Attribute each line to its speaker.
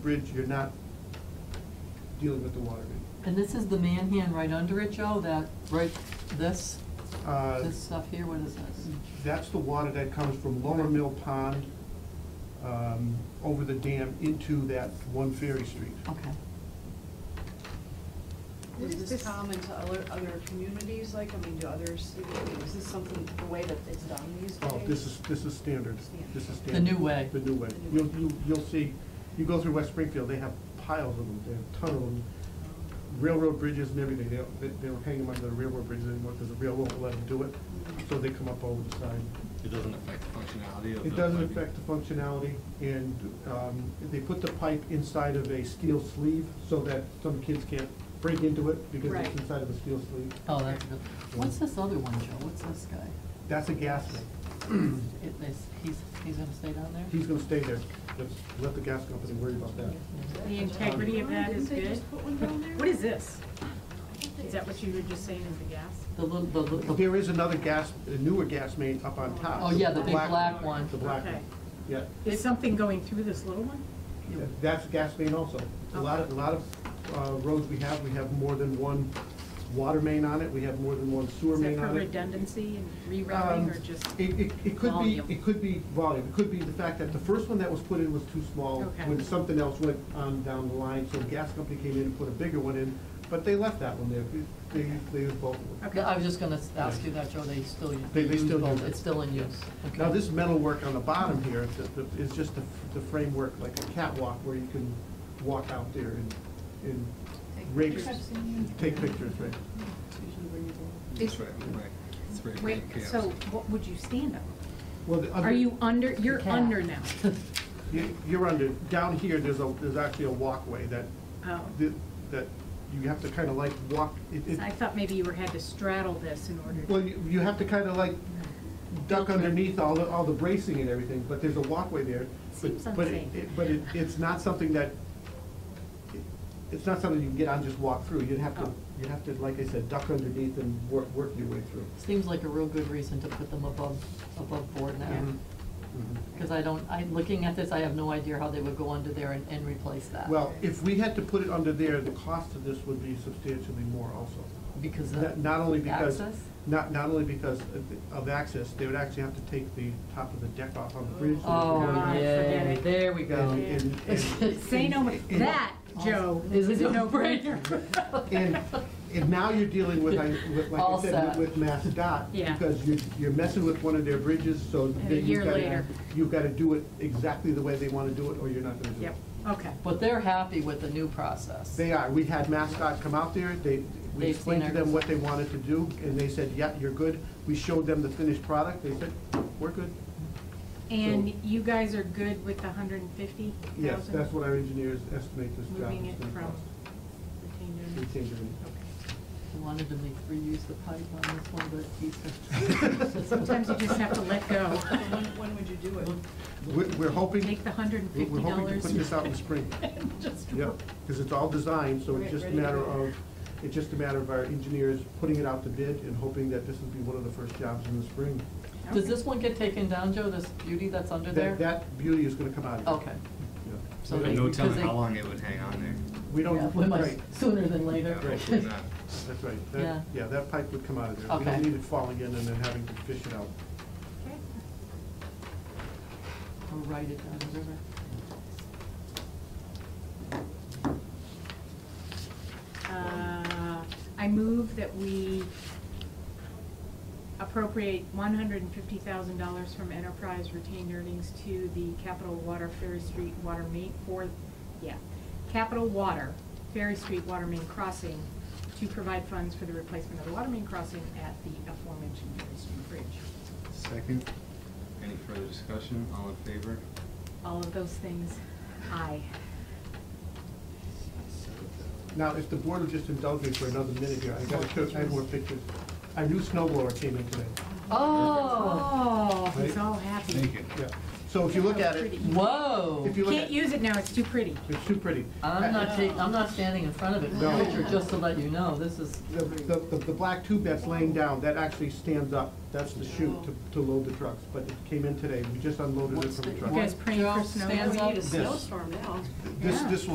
Speaker 1: bridge, you're not dealing with the water main.
Speaker 2: And this is the manhand right under it, Joe, that, right, this,
Speaker 1: Uh,
Speaker 2: this stuff here, what is this?
Speaker 1: That's the water that comes from Lower Mill Pond, um, over the dam into that one Ferry Street.
Speaker 2: Okay.
Speaker 3: What is
Speaker 4: Is
Speaker 3: this
Speaker 4: this-
Speaker 3: common to other, other communities, like, I mean, do others, see- I mean, is this something, the way that it's done these days?
Speaker 1: Oh, this is, this is standard, this is
Speaker 2: The
Speaker 1: standard.
Speaker 2: new way.
Speaker 1: The new way. You'll, you- you'll see, you go through West Springfield, they have piles of them, they have ton of them. Railroad bridges and everything, they, don't- they they don't hang them under the railroad bridges anymore, because the railroad will let them do it, so they come up over the side.
Speaker 5: It doesn't affect the functionality of the.
Speaker 1: It doesn't
Speaker 5: lighting.
Speaker 1: affect the functionality, and um, they put the pipe inside of a steel sleeve so that some kids can't break into it because
Speaker 3: Right.
Speaker 1: it's inside of a steel sleeve.
Speaker 2: Oh, that's good. What's this other one, Joe? What's this guy?
Speaker 1: That's a gas main.
Speaker 2: It, it's, he's, he's gonna stay down there?
Speaker 1: He's gonna stay there. Let's let the gas company worry about that.
Speaker 4: The integrity of that is
Speaker 3: Didn't they
Speaker 4: good.
Speaker 3: just put one down there?
Speaker 4: What is this? Is that what you were just saying is the gas?
Speaker 2: The little, the, little-
Speaker 1: There is another gas, a newer gas main up on top.
Speaker 2: oh, yeah, the big black one.
Speaker 1: The black one,
Speaker 4: Okay.
Speaker 1: yeah.
Speaker 4: Is something going through this little one?
Speaker 1: That's a gas main also. A lot of, a lot of uh, roads we have, we have more than one water main on it, we have more than one sewer
Speaker 4: Is
Speaker 1: main
Speaker 4: that
Speaker 1: on
Speaker 4: for
Speaker 1: it.
Speaker 4: redundancy and
Speaker 1: Um,
Speaker 4: rerouting or just?
Speaker 1: It, it, it could be,
Speaker 4: volume?
Speaker 1: it could be volume, it could be the fact that the first one that was put in was too small,
Speaker 4: Okay.
Speaker 1: when something else went on down the line, so the gas company came in and put a bigger one in, but they left that one there, they, they used both of them.
Speaker 2: No, I was just gonna ask you that, Joe, they still use.
Speaker 1: They- they still
Speaker 2: both.
Speaker 1: use it.
Speaker 2: It's still in use. Okay.
Speaker 1: Now, this metal work on the bottom here, the- the- is just the, the framework, like a catwalk where you can walk out there and, and rakes, take pictures, right?
Speaker 5: That's right, right. It's right,
Speaker 4: Wait,
Speaker 5: right,
Speaker 4: so
Speaker 5: chaos.
Speaker 4: what would you stand up?
Speaker 1: Well, the other-
Speaker 4: Are you under, you're
Speaker 2: Cat.
Speaker 4: under now?
Speaker 1: you- You're under, down here, there's a, there's actually a walkway that,
Speaker 4: Oh,
Speaker 1: that- that you have to kind of like walk, it, it,
Speaker 4: I thought maybe you were, had to straddle this in order
Speaker 1: Well,
Speaker 4: to.
Speaker 1: you, you have to kind of like duck underneath all the, all the bracing and everything, but there's a walkway there. But-
Speaker 4: Seems
Speaker 1: but it-
Speaker 4: unsafe.
Speaker 1: it- But it, it's not something that, it- it's not something you can get on, and just walk through. You'd have to,
Speaker 4: Oh.
Speaker 1: you'd have to, like I said, duck underneath and work, work your way through.
Speaker 2: Seems like a real good reason to put them above, above board now.
Speaker 1: Mhm. Mhm.
Speaker 2: Because I don't, I, looking at this, I have no idea how they would go under there and, and replace
Speaker 4: Uh,
Speaker 2: that.
Speaker 1: Well, if we had to put it under there, the cost of this would be substantially more also.
Speaker 2: Because
Speaker 1: Not-
Speaker 2: of.
Speaker 1: Not only because,
Speaker 2: access?
Speaker 1: not, not only because of- of access, they would actually have to take the top of the deck off on the bridge. so it's
Speaker 2: Oh,
Speaker 1: going
Speaker 4: God,
Speaker 1: in.
Speaker 4: forget
Speaker 2: yeah,
Speaker 4: it.
Speaker 2: there we go.
Speaker 1: And- and- and-
Speaker 4: Say no, more.
Speaker 1: and-
Speaker 4: that, Joe,
Speaker 2: Is
Speaker 4: is
Speaker 2: it
Speaker 4: a no-brainer.
Speaker 1: And, and now you're dealing with, I- with, like
Speaker 2: All
Speaker 1: I said,
Speaker 2: set.
Speaker 1: with MassDOT.
Speaker 4: Yeah.
Speaker 1: Because you're, you're messing with one of their bridges, so
Speaker 4: a
Speaker 1: then
Speaker 4: year
Speaker 1: you've gotta,
Speaker 4: later.
Speaker 1: you've gotta do it exactly the way they wanna do it, or you're not gonna do it.
Speaker 4: Yep, okay.
Speaker 2: But they're happy with the new process.
Speaker 1: They are, we had MassDOT come out there, they, we
Speaker 2: They've
Speaker 1: explained
Speaker 2: seen
Speaker 1: to
Speaker 2: our-
Speaker 1: them what they wanted to do, and they said, yeah, you're good. We showed them the finished product, they said, we're good.
Speaker 4: And you guys are good with the hundred and fifty thousand?
Speaker 1: Yes, that's what our engineers estimate this job
Speaker 4: Moving
Speaker 1: is
Speaker 4: it
Speaker 1: gonna
Speaker 4: from
Speaker 1: cost.
Speaker 4: retained
Speaker 1: We
Speaker 4: earnings?
Speaker 1: changed it.
Speaker 4: Okay.
Speaker 2: They wanted to make free use of pipe on this one, but he's.
Speaker 4: Sometimes you just have to let go.
Speaker 3: So When, when would you do it?
Speaker 1: We're, we're hoping,
Speaker 4: Take the hundred and
Speaker 1: we're
Speaker 4: fifty
Speaker 1: we're hoping to
Speaker 4: dollars.
Speaker 1: put this out in spring.
Speaker 4: Just
Speaker 1: Yeah, because it's all designed, so it's
Speaker 3: Right,
Speaker 1: just a
Speaker 3: ready to
Speaker 1: matter
Speaker 3: go.
Speaker 1: of, it's just a matter of our engineers putting it out to bid and hoping that this will be one of the first jobs in the spring.
Speaker 2: Does this one get taken down, Joe, this beauty that's under
Speaker 1: That-
Speaker 2: there?
Speaker 1: That beauty is gonna come out of it.
Speaker 2: Okay.
Speaker 1: Yeah.
Speaker 2: So
Speaker 1: We
Speaker 2: they-
Speaker 1: don't-
Speaker 5: No telling
Speaker 2: because they-
Speaker 5: how long it would hang on there.
Speaker 1: We
Speaker 2: Yeah,
Speaker 1: don't,
Speaker 2: we might-
Speaker 1: right,
Speaker 2: Sooner than later.
Speaker 5: Yeah, Hopefully not.
Speaker 1: that's right. That-
Speaker 2: Yeah.
Speaker 1: Yeah, that pipe would come out of there. We don't
Speaker 2: Okay.
Speaker 1: need it falling in and then having to fish it out.
Speaker 2: Or write it down, whatever.
Speaker 4: Uh, I move that we appropriate one hundred and fifty thousand dollars from enterprise retained earnings to the Capital Water Ferry Street Water Main for, yeah, Capital Water Ferry Street Water Main Crossing to provide funds for the replacement of the water main crossing at the aforementioned Ferry Street Bridge.
Speaker 5: Second, any further discussion? All in favor?
Speaker 4: All of those things, aye.
Speaker 1: Now, if the board would just indulge me for another minute here, I gotta show, I have more pictures. Our new snow blower came in today.
Speaker 2: Oh,
Speaker 4: Oh, he's
Speaker 1: Right.
Speaker 4: all happy.
Speaker 5: Thank you.
Speaker 1: Yeah, So if you look at it,
Speaker 4: Pretty.
Speaker 2: Whoa.
Speaker 1: If you look
Speaker 4: Can't
Speaker 1: at-
Speaker 4: use it now, it's too pretty.
Speaker 1: it's too pretty. Uh,
Speaker 2: I'm not taking, I'm not standing in front of it,
Speaker 1: No.
Speaker 2: Richard, just to let you know, this is,
Speaker 1: The, the, the- the black tube that's laying down, that actually stands up. That's the chute to, to load the trucks, but it came in today. We just unloaded it
Speaker 2: What's
Speaker 1: from the
Speaker 2: the-
Speaker 1: truck.
Speaker 4: You guys praying for
Speaker 2: Joe
Speaker 4: snow?
Speaker 2: stands
Speaker 3: We
Speaker 2: up.
Speaker 3: need a snowstorm now.
Speaker 1: This,
Speaker 4: Yeah.
Speaker 1: this